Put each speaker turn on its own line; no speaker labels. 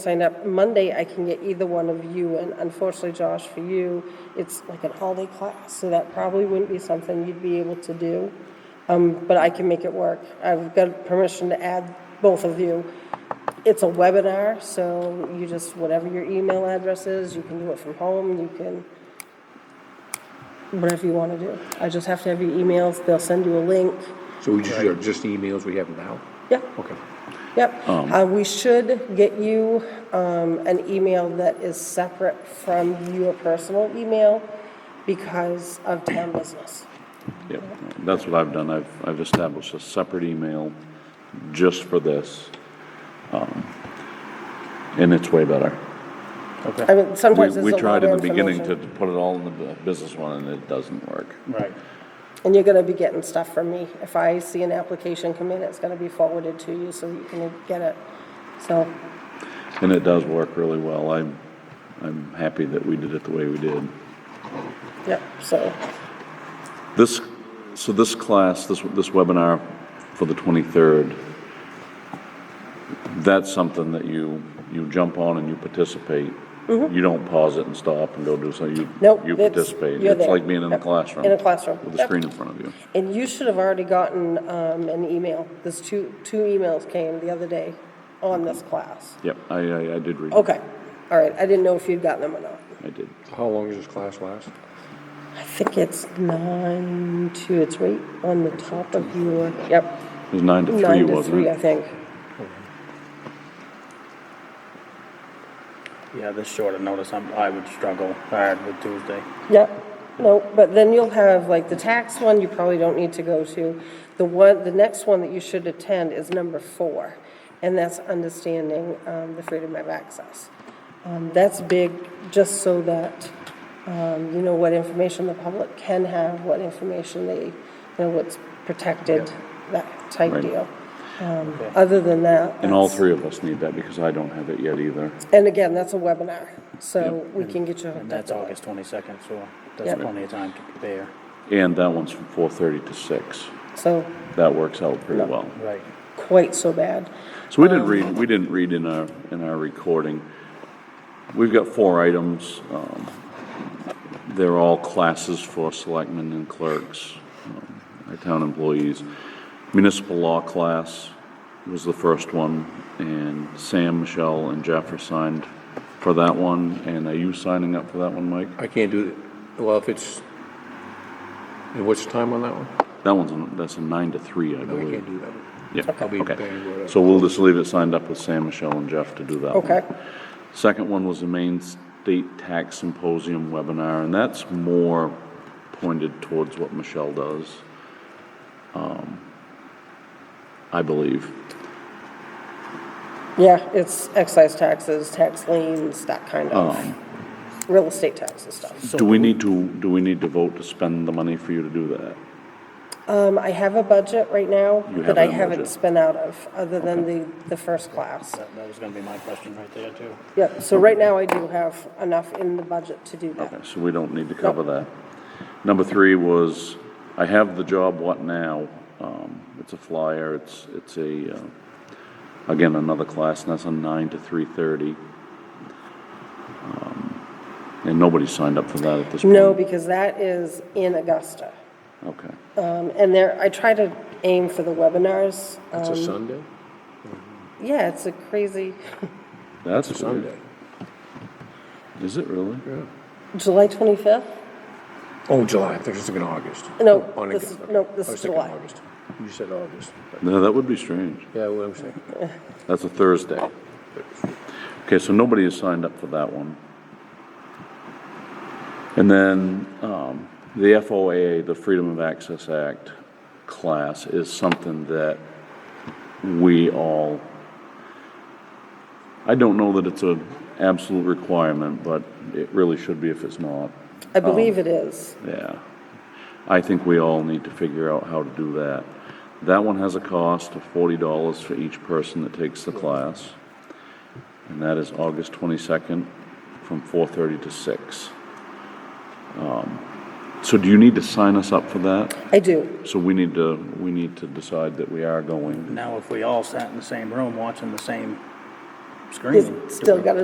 sign up Monday, I can get either one of you, and unfortunately, Josh, for you, it's like an all-day class, so that probably wouldn't be something you'd be able to do. Um, but I can make it work. I've got permission to add both of you. It's a webinar, so you just, whatever your email address is, you can do it from home, you can, whatever you wanna do. I just have to have your emails, they'll send you a link.
So we just, are just emails we have now?
Yeah.
Okay.
Yep.
Um.
Uh, We should get you um, an email that is separate from your personal email because of town business.
Yep, that's what I've done. I've, I've established a separate email just for this. um, And it's way better.
I mean,
We,
sometimes
we
there's a lot
tried in the
of
beginning to
information.
put it all in the bu- business one and it doesn't work.
Right.
And you're going to be getting stuff from me. If I see an application come in, it's going to be forwarded to you so you can get it. So,
And it does work really well. I'm, I'm happy that we did it the way we did.
yep, so,
This, so this class, this, this webinar for the 23rd, that's something that you, you jump on and you participate. You don't pause it and stop and go do something. You-
Mm-hmm. Nope,
You
it's-
participate.
you're
It's
there.
like being in a
Yep,
classroom.
in a classroom.
With a
Yep.
screen in front of you.
and you should have already gotten um, an email. There's two, two emails came the other day on this class.
Yep, I, I, I did read. it.
Okay, all right. I didn't know if you'd gotten them or not.
I did.
How long does this class last?
I think it's nine to, it's right on the top of your, yep,
It was nine to three,
nine to
wasn't
three, I
it?
think.
Yeah, this short of notice, I'm, I would struggle hard with Tuesday.
Yep, no, but then you'll have, like, the tax one, you probably don't need to go to. The one, the next one that you should attend is number four, and that's understanding um, the freedom of access. Um, That's big, just so that um, you know what information the public can have, what information they, you know, what's protected, that type
Right.
deal. Um, Other than that.
And all
that's-
three of us need that because I don't have it yet either.
And again, that's a webinar, so we can get you
And
hooked up.
that's
to it.
August twenty-second, so
Yep.
that's plenty of time to prepare.
And that one's from 4:30 to 6.
So
That works out pretty well.
Right.
quite so bad.
So we didn't read, we didn't read in our, in our recording. We've got four items. um, They're all classes for selectmen and clerks, um, our town employees. Municipal law class was the first one, and Sam, Michelle, and Jeff are signed for that one. And are you signing up for that one, Mike?
I can't do, it. well, if it's, and what's the time on that one?
That one's, a- that's a nine to three, I
No, I can't
believe.
do that one.
Yeah,
I'll be banged
okay.
whatever.
So we'll just leave it signed up with Sam, Michelle, and Jeff to do that one.
Okay.
Second one was the Maine State Tax Symposium webinar, and that's more pointed towards what Michelle does, um, I believe.
Yeah, it's excise taxes, tax liens, that kind
Oh.
of, real estate taxes stuff.
Do we need to, do we need to vote to spend the money for you to do that?
Um, I have a budget right now
You
that I
have a
haven't
budget.
spent out of, other than the, the first class.
That, that was gonna be my question right there too.
Yep, so right now I do have enough in the budget to do that.
Okay, so we don't need to cover that. Number three was, I have the job, what now? Um, It's a flyer, it's, it's a, uh, again, another class, and that's a nine to three thirty. Um, And nobody signed up for that at this point?
No, because that is in Augusta.
Okay.
Um, and there, I try to aim for the webinars. Um,
It's a Sunday?
Yeah, it's a crazy,
That's
It's a
weird.
Sunday.
Is it really?
Yeah.
July 25th?
Oh, July, I think it's in August. Oh,
No,
On
this
again,
is-
okay.
no, this is
I was thinking
July.
August. You said August. but-
No, that would be strange.
Yeah, what I'm saying.
That's a Thursday. Okay, so nobody has signed up for that one. And then um, the FOA, the Freedom of Access Act class, is something that we all, I don't know that it's a absolute requirement, but it really should be if it's not.
I
Oh.
believe it is.
Yeah. I think we all need to figure out how to do that. That one has a cost of forty dollars for each person that takes the class. And that is August twenty-second from four-thirty to six. Um, So do you need to sign us up for that?
I do.
So we need to, we need to decide that we are going.
Now, if we all sat in the same room watching the same screening.
It's still got to